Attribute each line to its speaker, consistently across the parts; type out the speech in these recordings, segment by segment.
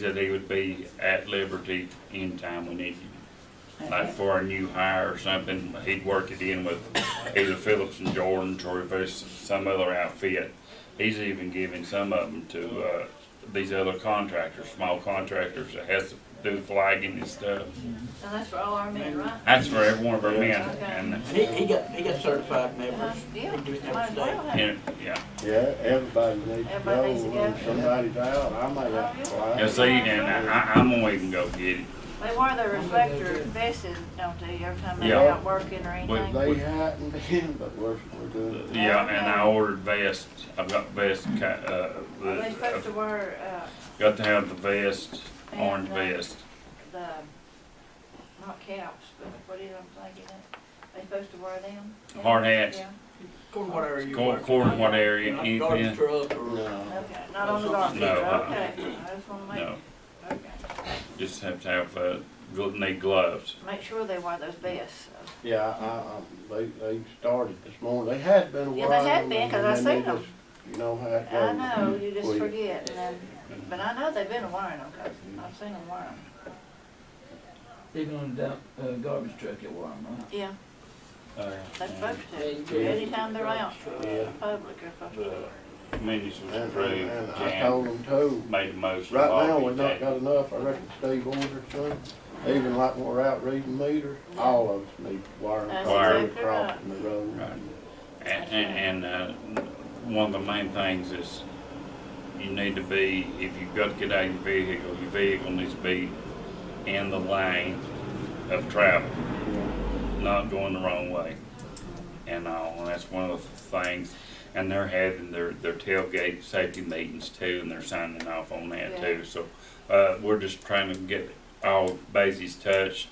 Speaker 1: that he would be at liberty anytime we needed him. Like for a new hire or something, he'd work it in with either Phillips and Jordan, or if it's some other outfit. He's even giving some of them to, uh, these other contractors, small contractors that has to do flagging and stuff.
Speaker 2: And that's for all our men, right?
Speaker 1: That's for every one of our men, and,
Speaker 3: He, he got, he got certified
Speaker 2: Uh-huh,
Speaker 3: members.
Speaker 2: Yeah,
Speaker 3: He do it
Speaker 2: might
Speaker 3: every
Speaker 2: as
Speaker 3: state.
Speaker 2: well have.
Speaker 1: and, yeah.
Speaker 4: Yeah, everybody needs to
Speaker 2: Everybody
Speaker 4: go
Speaker 2: needs to
Speaker 4: when
Speaker 2: go.
Speaker 4: somebody's out, I might have to fly.
Speaker 1: You see, and I, I'm gonna even go get it.
Speaker 2: They wear their reflector vests, don't they, every time they're
Speaker 1: Yeah.
Speaker 2: out working or
Speaker 1: But
Speaker 2: anything?
Speaker 4: They hadn't been, but we're, we're doing it.
Speaker 1: Yeah, and I ordered vests, I've got vests, ca- uh,
Speaker 2: Are they
Speaker 1: the-
Speaker 2: supposed to wear, uh,
Speaker 1: Got to have the vest, orange
Speaker 2: And, uh,
Speaker 1: vest.
Speaker 2: the, not caps, but what is I'm thinking of? They supposed to wear them?
Speaker 1: Hard hats.
Speaker 2: Yeah,
Speaker 3: According to whatever you
Speaker 1: Go
Speaker 3: work.
Speaker 1: according what
Speaker 3: You're
Speaker 1: area,
Speaker 3: not a
Speaker 1: anything.
Speaker 3: Garbage truck or.
Speaker 4: No,
Speaker 2: okay, not on the garbage,
Speaker 1: No, uh-uh.
Speaker 2: okay, I just wanna make,
Speaker 1: No,
Speaker 2: okay.
Speaker 1: just have to have, uh, gl- need gloves.
Speaker 2: Make sure they wear those vests, so.
Speaker 4: yeah, I, I, they, they started this morning, they had been a
Speaker 2: Yeah,
Speaker 4: while.
Speaker 2: they had been, 'cause I
Speaker 4: and then
Speaker 2: seen
Speaker 4: they
Speaker 2: 'em.
Speaker 4: just- You know how it goes.
Speaker 2: I know, you just
Speaker 4: We-
Speaker 2: forget, and then, but I know they've been wearing them, 'cause I've seen them wear them.
Speaker 5: They're gonna dump a garbage truck at Walmart.
Speaker 2: Yeah,
Speaker 1: Uh,
Speaker 2: they're supposed to,
Speaker 4: Yeah.
Speaker 2: anytime they're out,
Speaker 4: Yeah.
Speaker 2: public, they're supposed to.
Speaker 1: The minutes was
Speaker 4: And,
Speaker 1: approved,
Speaker 4: and I told
Speaker 1: Jan
Speaker 4: them too,
Speaker 1: made the most of
Speaker 4: right now,
Speaker 1: all
Speaker 4: we
Speaker 1: he
Speaker 4: not
Speaker 1: had.
Speaker 4: got enough, I reckon Steve ordered some. Even like when we're out reading meters, all of us need wiring.
Speaker 2: That's
Speaker 4: Wiring
Speaker 2: exactly right.
Speaker 4: Crossing the road.
Speaker 1: Right. And, and, and, uh, one of the main things is you need to be, if you've got to get out of your vehicle, your vehicle needs to be in the lane of travel. not going the wrong way and all. And that's one of the things. And they're having their, their tailgate safety meetings too, and they're signing off on that
Speaker 2: Yeah.
Speaker 1: too. So uh, we're just trying to get all bases touched,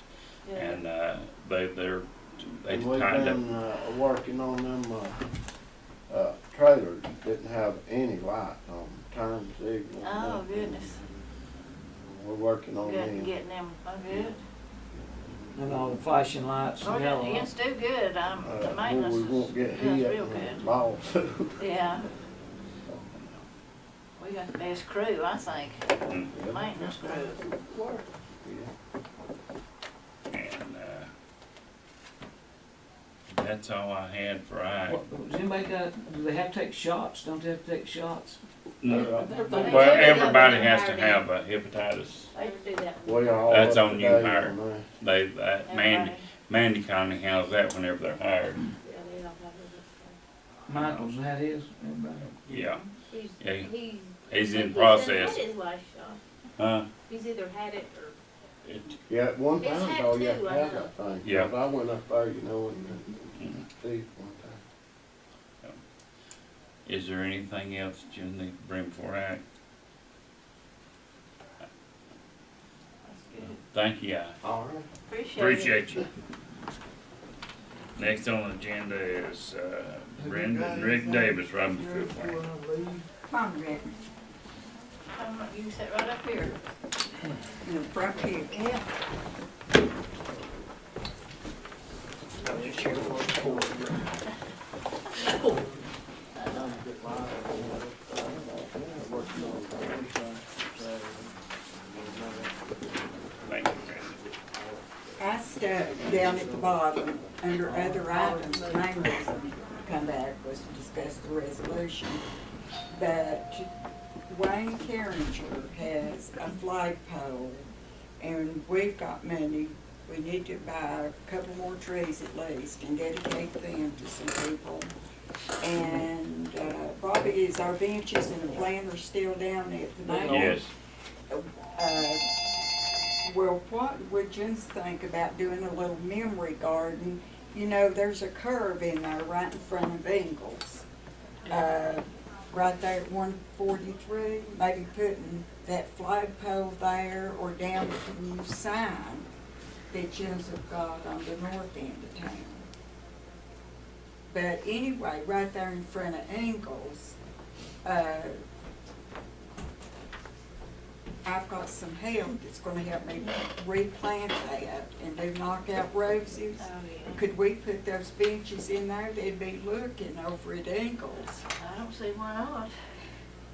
Speaker 2: Yeah.
Speaker 1: and uh, they they're they
Speaker 4: And we've
Speaker 1: tightened up.
Speaker 4: been, uh, working on them, uh, uh, trailers, that didn't have any light on, turn signal.
Speaker 2: Oh,
Speaker 4: nothing.
Speaker 2: goodness.
Speaker 4: We're working on
Speaker 2: Good,
Speaker 4: them.
Speaker 2: getting them, I'm good.
Speaker 5: And all the flashing lights
Speaker 2: Lord,
Speaker 5: and hell.
Speaker 2: Ian's do good, um,
Speaker 4: Uh,
Speaker 2: the
Speaker 4: boy,
Speaker 2: maintenance
Speaker 4: we won't get
Speaker 2: is, does
Speaker 4: hit
Speaker 2: real
Speaker 4: in a
Speaker 2: good.
Speaker 4: lawsuit.
Speaker 2: Yeah. We got the best crew, I think, the maintenance crew.
Speaker 1: And uh, that's all I had for I.
Speaker 5: What- Does anybody got, do they have to take shots? Don't they have to take shots?
Speaker 3: uh,
Speaker 1: Well,
Speaker 3: Everything-
Speaker 1: everybody has to have a hepatitis.
Speaker 2: They do that.
Speaker 4: We are all up
Speaker 1: That's
Speaker 4: to
Speaker 1: on you,
Speaker 4: date
Speaker 1: Howard.
Speaker 4: on that.
Speaker 1: They that Mandy Mandy Conley handles that whenever they're hired.
Speaker 2: Mm-hmm.
Speaker 5: Michael's had his, everybody.
Speaker 1: Yeah,
Speaker 6: He's,
Speaker 1: Yeah.
Speaker 6: he's.
Speaker 1: he's in
Speaker 6: he's either
Speaker 1: process.
Speaker 6: had his life shot.
Speaker 1: Huh?
Speaker 6: He's either had it or.
Speaker 1: It,
Speaker 4: Yeah, at one
Speaker 6: It's
Speaker 4: time,
Speaker 6: had
Speaker 4: though, you
Speaker 6: two,
Speaker 4: had to
Speaker 6: I
Speaker 4: have
Speaker 6: know.
Speaker 4: that thing.
Speaker 1: Yeah. Mm-hmm.
Speaker 4: But I went up there, you know, and, and see one time.
Speaker 1: is there anything else that you need to bring before I?
Speaker 2: That's good.
Speaker 1: Thank you, I
Speaker 4: All right.
Speaker 2: Appreciate it.
Speaker 1: appreciate you. Next on the agenda is, uh, Brendan, Rick Davis, Robinson Field Plan.
Speaker 7: Come, Rick,
Speaker 2: Come on, You can sit right up here.
Speaker 7: in the front here.
Speaker 2: Yeah.
Speaker 3: I'm just here for a tour.
Speaker 1: Thank you, Brendan.
Speaker 7: I stuck down at the bottom, under other items, the main reason to come back was to discuss the resolution. But Wayne Carringer has a flagpole, and we've got money. We need to buy a couple more trees at least and dedicate them to some people. And uh, Bobby, is our benches and the planters still down at the main?
Speaker 1: Yes,
Speaker 7: uh, well, what would you think about doing a little memory garden? You know, there's a curve in there right in front of Ingles. Uh, right there at one forty-three, maybe putting that flagpole there or down at the new sign that Joseph got on the north end of town. But anyway, right there in front of Ingles, uh, I've got some help that's gonna help me replant that and do knockout roses.
Speaker 2: Oh, yeah.
Speaker 7: Could we put those benches in there? They'd be looking over at Ingles.
Speaker 2: I don't see why not.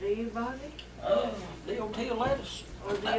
Speaker 2: Do you, Bobby?
Speaker 3: Uh, DOT let us.
Speaker 2: Or do you